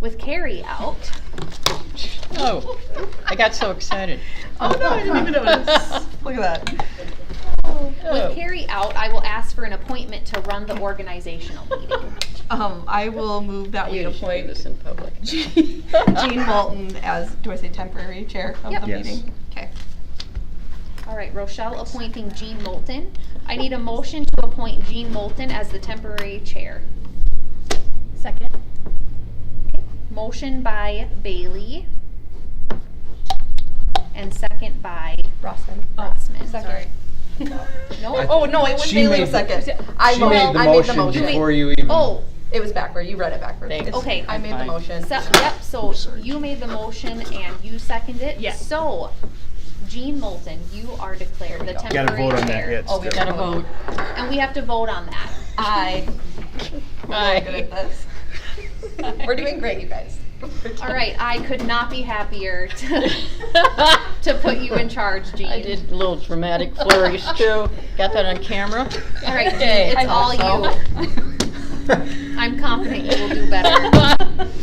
with carry out. Oh, I got so excited. Oh, no, I didn't even notice. Look at that. With Oh. carry out, I will ask for an appointment to run the organizational meeting. Um, I will move that we You should do appoint this in public. Jean Jean Walton as, do I say temporary chair of Yep. the Yes. meeting? Okay. All right, Rochelle appointing Jean Moulton. I need a motion to appoint Jean Moulton as the temporary chair. Second. Motion by Bailey. And second by Rossman. Rossman. Oh, Sorry. No, Oh, no, it was She Bailey made a the- second. I She mo- made the I made the motion before motion. you even. oh, It was backward, you read it backwards. Thanks. It's- Okay. I made the Fine. motion. so, yep, so you made the motion and you seconded it. Yes. So, Jean Moulton, you are declared the temporary chair. Gotta vote on that yet. Oh, we've still. got a vote. And we have to vote on that. I, Aye. good at this. We're doing great, you guys. All right, I could not be happier to, to put you in charge, Jean. I did a little dramatic flourish too. Got that on camera? All right, Jean, Okay. it's all you. I'm confident you will do better.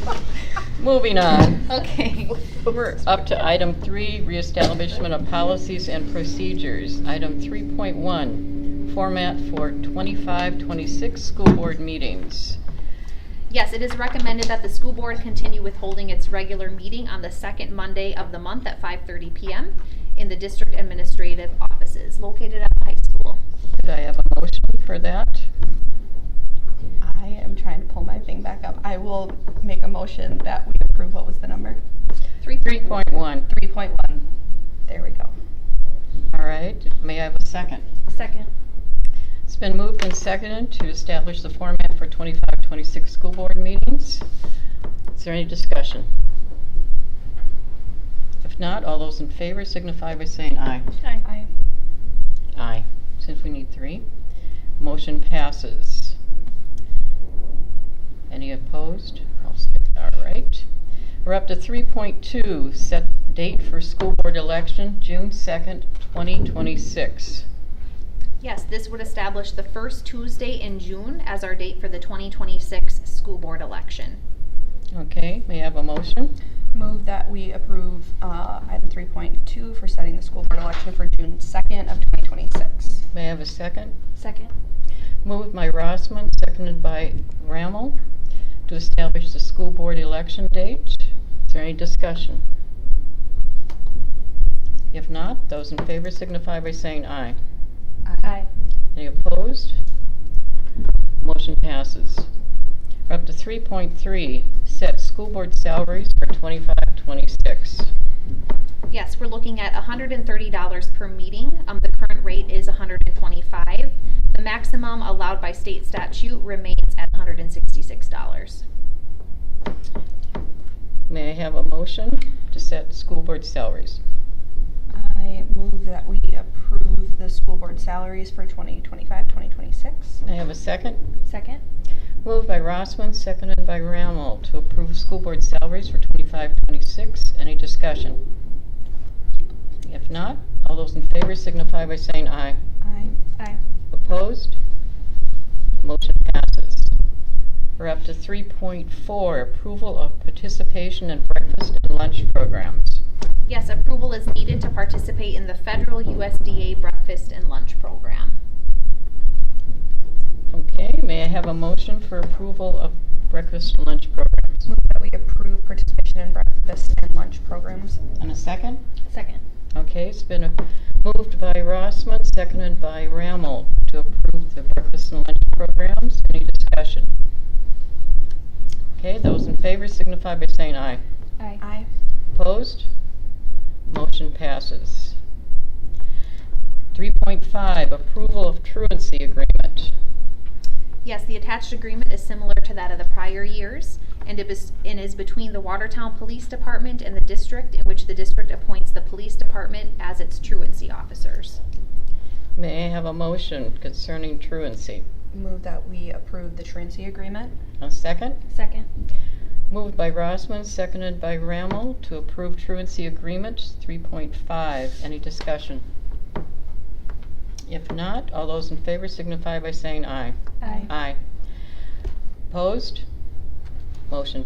Moving on. Okay. We're up to item three, reestablishment of policies and procedures. Item three point one, format for 25-26 school board meetings. Yes, it is recommended that the school board continue with holding its regular meeting on the second Monday of the month at 5:30 PM in the district administrative offices located at the high school. Could I have a motion for that? I am trying to pull my thing back up. I will make a motion that we approve, what was the number? Three Three point one, Three point one. There we go. all right. May I have a second? Second. It's been moved and seconded to establish the format for 25-26 school board meetings. Is there any discussion? If not, all those in favor signify by saying aye. I, Aye. Since we need three, motion passes. Any opposed? I'll skip. All right. We're up to 3.2, set date for school board election, June 2nd, 2026. Yes, this would establish the first Tuesday in June as our date for the 2026 school board election. Okay, may I have a motion? Move that we approve uh, item 3.2 for setting the school board election for June 2nd of 2026. May I have a second? Second. Moved by Rossman, seconded by Rammel, to establish the school board election date. Is there any discussion? If not, those in favor signify by saying aye. Aye. Any opposed? Motion passes. We're up to 3.3, set school board salaries for 25, 26. Yes, we're looking at hundred and thirty dollars per meeting. Um, the current rate is hundred and twenty-five. The maximum allowed by state statute remains at hundred and sixty-six dollars. May I have a motion to set school board salaries? I move that we approve the school board salaries for 2025, 2026. May I have a second? Second. Moved by Rossman, seconded by Rammel to approve school board salaries for 25-26. Any discussion? If not, all those in favor signify by saying aye. Aye. Aye. Opposed? Motion passes. We're up to three point four, approval of participation in breakfast and lunch programs. Yes, approval is needed to participate in the federal USDA breakfast and lunch program. Okay, may I have a motion for approval of breakfast and lunch programs? Move that we approve participation in breakfast and lunch programs. And a second? Second. Okay, it's been uh, moved by Rossman, seconded by Rammel to approve the breakfast and lunch programs. Any discussion? Okay, those in favor signify by saying aye. Aye. Aye. Opposed? Motion passes. 3.5, approval of truancy agreement. Yes, the attached agreement is similar to that of the prior years, and it is, and is between the Watertown Police Department and the district in which the district appoints the police department as its truancy officers. May I have a motion concerning truancy? Move that we approve the truancy agreement. A second? Second. Moved by Rossman, seconded by Rammel to approve truancy agreement 3.5. Any discussion? If not, all those in favor signify by saying aye. Aye. Aye. Opposed? Motion